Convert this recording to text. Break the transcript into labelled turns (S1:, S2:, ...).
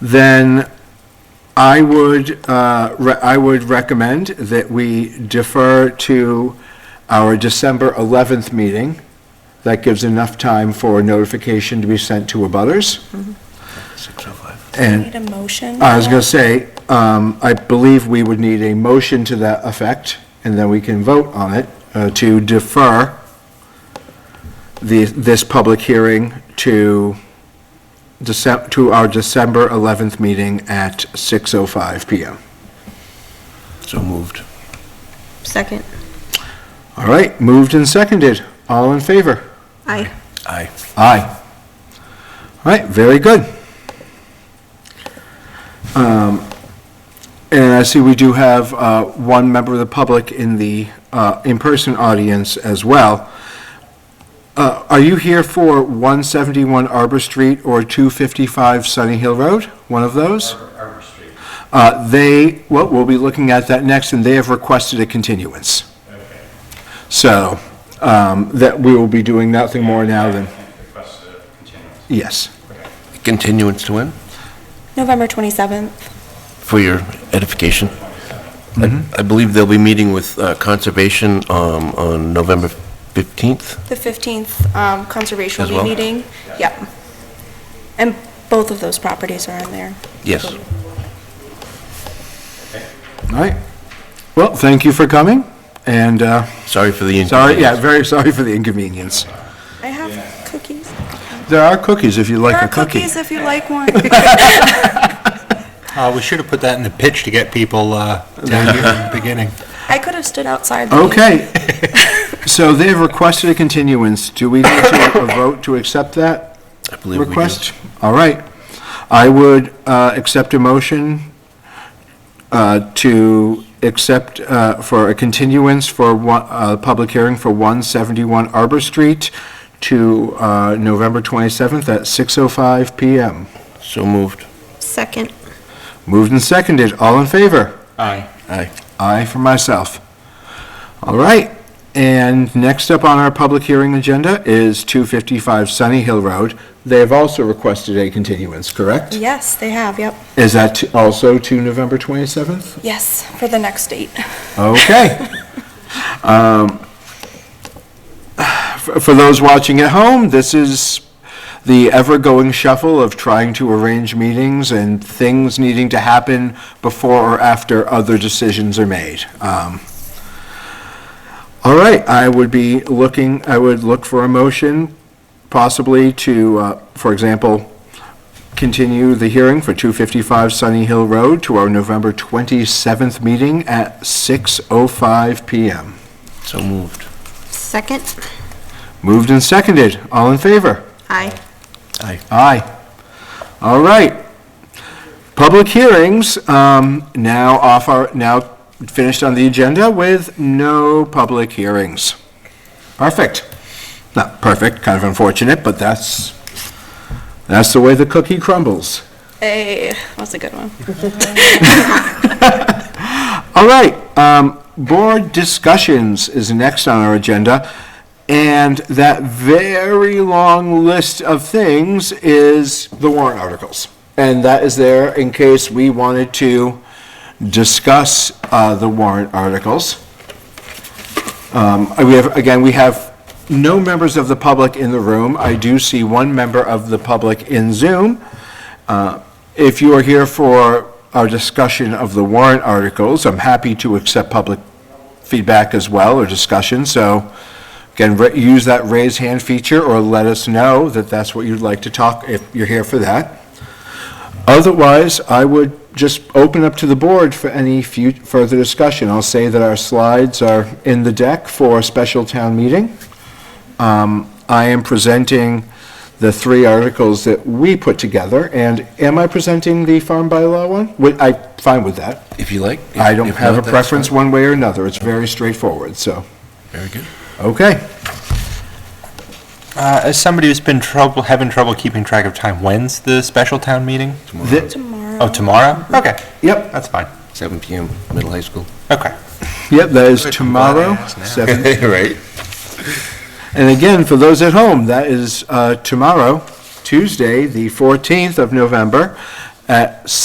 S1: then I would, uh, re- I would recommend that we defer to our December 11th meeting. That gives enough time for notification to be sent to abutters. And
S2: Need a motion?
S1: I was going to say, um, I believe we would need a motion to that effect, and then we can vote on it, uh, to defer the, this public hearing to December, to our December 11th meeting at 6:05 PM.
S3: So moved.
S4: Second.
S1: All right, moved and seconded. All in favor?
S4: Aye.
S3: Aye.
S1: Aye. All right, very good. Um, And I see we do have uh, one member of the public in the uh, in-person audience as well. Uh, Are you here for 171 Arbor Street or 255 Sunny Hill Road? One of those?
S5: Arbor Street.
S1: Uh, They, well, we'll be looking at that next, and they have requested a continuance.
S5: Okay.
S1: So um, that we will be doing nothing more now than,
S5: Request a continuance.
S1: yes.
S3: Continuance to when?
S2: November 27th.
S3: For your edification. I
S1: Mm-hmm.
S3: I believe they'll be meeting with uh, Conservation um, on November 15th.
S2: The 15th um, Conservation
S3: As
S2: will
S3: well?
S2: be meeting. Yep. And both of those properties are in there.
S3: Yes.
S1: All right. Well, thank you for coming, and uh,
S3: Sorry for the
S1: sorry, yeah,
S3: inconvenience.
S1: very sorry for the inconvenience.
S2: I have cookies.
S1: There are cookies if you'd
S2: There
S1: like
S2: are
S1: a cookie.
S2: cookies if you like one.
S6: Uh, we should have put that in the pitch to get people, uh, down here in the beginning.
S2: I could have stood outside. the meeting.
S1: Okay. So they've requested a continuance. Do we need to a vote to accept that
S3: I believe we do.
S1: request? All right. I would uh, accept a motion uh, to accept uh, for a continuance for one, uh, public hearing for 171 Arbor Street to uh, November 27th at 6:05 PM.
S3: So moved.
S4: Second.
S1: Moved and seconded, all in favor?
S5: Aye.
S3: Aye.
S1: Aye for myself. All right, and next up on our public hearing agenda is 255 Sunny Hill Road. They have also requested a continuance, correct?
S2: Yes, they have, yep.
S1: Is that t- also to November 27th?
S2: Yes, for the next date.
S1: Okay. Um, For for those watching at home, this is the ever-going shuffle of trying to arrange meetings and things needing to happen before or after other decisions are made. Um, All right, I would be looking, I would look for a motion possibly to, uh, for example, continue the hearing for 255 Sunny Hill Road to our November 27th meeting at 6:05 PM.
S3: So moved.
S4: Second.
S1: Moved and seconded. All in favor?
S4: Aye.
S1: Aye. All right. Public hearings, um, now off our, now finished on the agenda with no public hearings. Perfect. Not perfect, kind of unfortunate, but that's, that's the way the cookie crumbles.
S2: Hey, that's a good one.
S1: All right, um, board discussions is next on our agenda, and that very long list of things is the warrant articles. And that is there in case we wanted to discuss, uh, the warrant articles. Um, we have, again, we have no members of the public in the room. I do see one member of the public in Zoom. If you are here for our discussion of the warrant articles, I'm happy to accept public feedback as well or discussion, so again, ra- use that raise hand feature or let us know that that's what you'd like to talk, if you're here for that. Otherwise, I would just open up to the board for any fu- further discussion. I'll say that our slides are in the deck for a special town meeting. Um, I am presenting the three articles that we put together, and am I presenting the farm bylaw one? Would- I, fine with that.
S3: If you like.
S1: I don't
S3: If
S1: have a
S3: not, that's
S1: preference
S3: fine.
S1: one way or another. It's very straightforward, so,
S3: Very good.
S1: okay.
S6: Uh, as somebody who's been trouble, having trouble keeping track of time, when's the special town meeting?
S1: Th-
S6: Oh, tomorrow? Okay,
S1: Yep,
S6: that's fine.
S3: 7 PM, middle high school.
S6: Okay.
S1: yep, that is tomorrow,
S6: Yes, now.
S1: seven.
S3: Right.
S1: And again, for those at home, that is uh, tomorrow, Tuesday, the 14th of November, at